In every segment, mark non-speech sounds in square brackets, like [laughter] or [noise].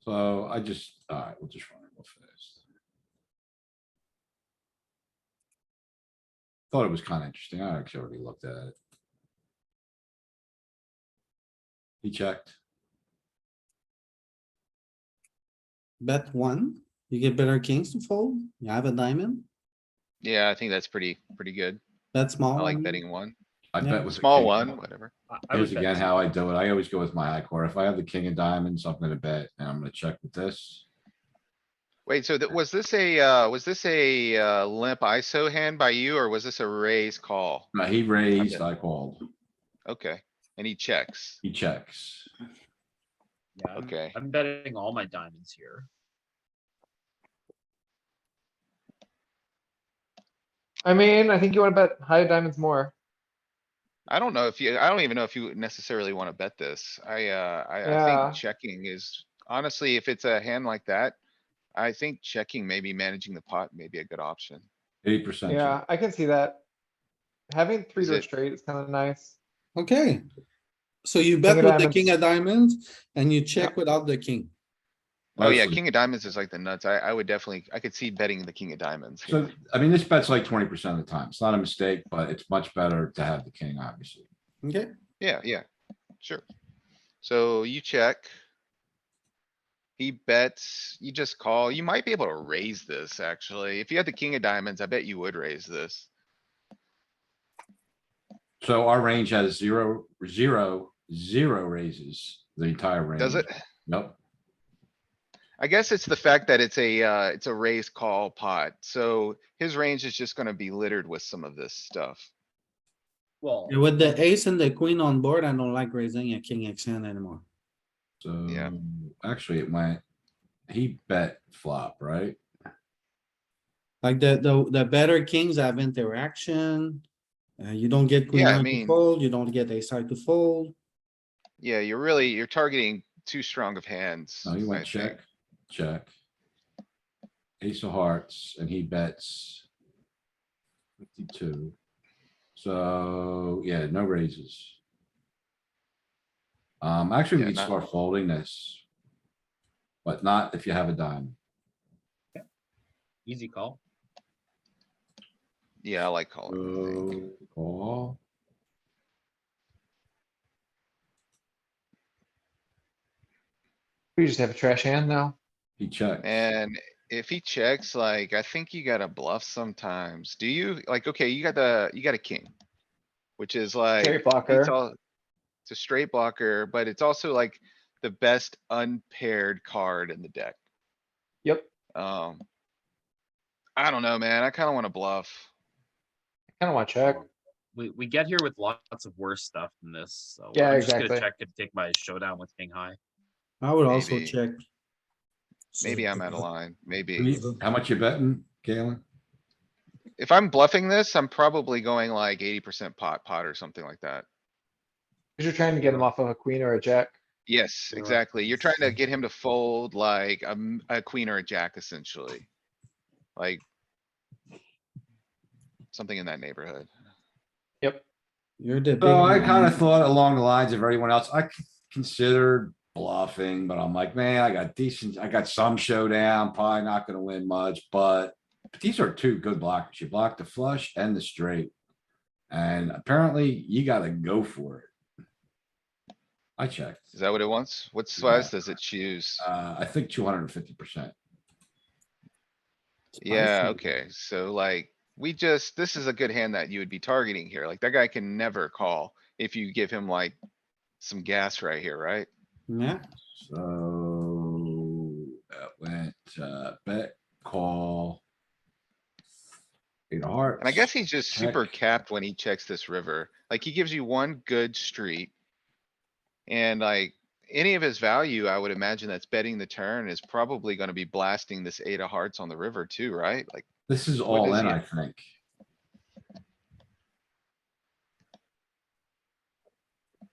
So I just, all right, we'll just run it real fast. Thought it was kind of interesting. I actually already looked at it. He checked. Bet one, you get better kings to fold, you have a diamond, Yeah, I think that's pretty, pretty good. bet small. I I like mean. betting one, I bet Yeah. with. Um, a small king. one, whatever. I- I Here's would bet again small. how I do it. I always go with my high card. If I have the king of diamonds, I'm gonna bet and I'm gonna check with this. Wait, so that, was this a, uh, was this a, uh, limp ISO hand by you or was this a raise call? Now, he raised, I called. Okay, and he checks. He checks. Yeah, Um, I'm- Okay. I'm betting all my diamonds here. I mean, I think you wanna bet high diamonds more. I don't know if you, I don't even know if you necessarily wanna bet this. I, uh, I, I Yeah. think checking is, honestly, if it's a hand like that. I think checking, maybe managing the pot may be a good option. Eighty percent. Yeah, I can see that. Having three Is to a it- straight is kinda nice. Okay. So you bet with of the diamonds. king of diamonds and you check without the king. Oh yeah, king of diamonds is like the nuts. I, I would definitely, I could see betting the king of diamonds. here. So, I mean, this bet's like twenty percent of the time. It's not a mistake, but it's much better to have the king, obviously. Okay, Yeah, yeah, sure. So you check. He bets, you just call. You might be able to raise this, actually. If you had the king of diamonds, I bet you would raise this. So our range has zero, zero, zero raises, the entire range. Does it? Nope. I guess it's the fact that it's a, uh, it's a raise call pot, so his range is just gonna be littered with some of this stuff. Well, with the ace and the queen on board, I don't like raising a king X hand anymore. So, Yeah. actually, it went, he bet flop, right? Like the, the, the better kings have interaction. Uh, you don't get queen Yeah, I nine to mean- fold, you don't get a side to fold. Yeah, you're really, you're targeting too strong of hands. No, he I went think. Oh, check, check. Ace of hearts and he bets. Fifty-two. So, yeah, no raises. Um, actually, Yeah, we could not- start folding this. But not if you have a dime. easy call. Yeah, I like calling. I think. So, Call. We just have a trash hand now. He checked. And if he checks, like, I think you gotta bluff sometimes. Do you? Like, okay, you got the, you got a king. Which is like, Straight it's blocker. all, it's a straight blocker, but it's also like the best unpaired card in the deck. Yep. Um. I don't know, man. I kinda wanna bluff. Kinda wanna check. We, we get here with lots of worse stuff than this, so. Yeah, I'm just gonna exactly. Check and take my showdown with king high. I would also Maybe. check. Maybe I'm out of line, maybe. You- How much you betting, Galen? If I'm bluffing this, I'm probably going like eighty percent pot, pot or something like that. Cause you're trying to get him off of a queen or a jack. Yes, You're right. exactly. You're trying to get him to fold like a, m- a queen or a jack essentially. Like. Something in that neighborhood. You're the. big So Oh, I man. kinda thought along the lines of everyone else, I c- considered bluffing, but I'm like, man, I got decent, I got some showdown, probably not gonna win much, but. but These are two good blockers. You block the flush and the straight. And apparently you gotta go for it. I checked. Is that what it wants? What Yeah. size does it choose? Uh, I think two hundred and fifty percent. Yeah, spicy. okay, so like, we just, this is a good hand that you would be targeting here. Like, that guy can never call if you give him like. Some gas right here, right? Yeah, So that went, uh, bet, call. Eight of hearts. And I guess he's just super Check. capped when he checks this river. Like, he gives you one good street. And like, any of his value, I would imagine that's betting the turn is probably gonna be blasting this eight of hearts on the river too, right? Like, This is What all is in, he- I think.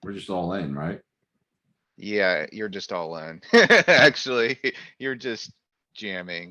We're just all in, right? [laughs] yeah, you're just all in. Actually, you're just jamming.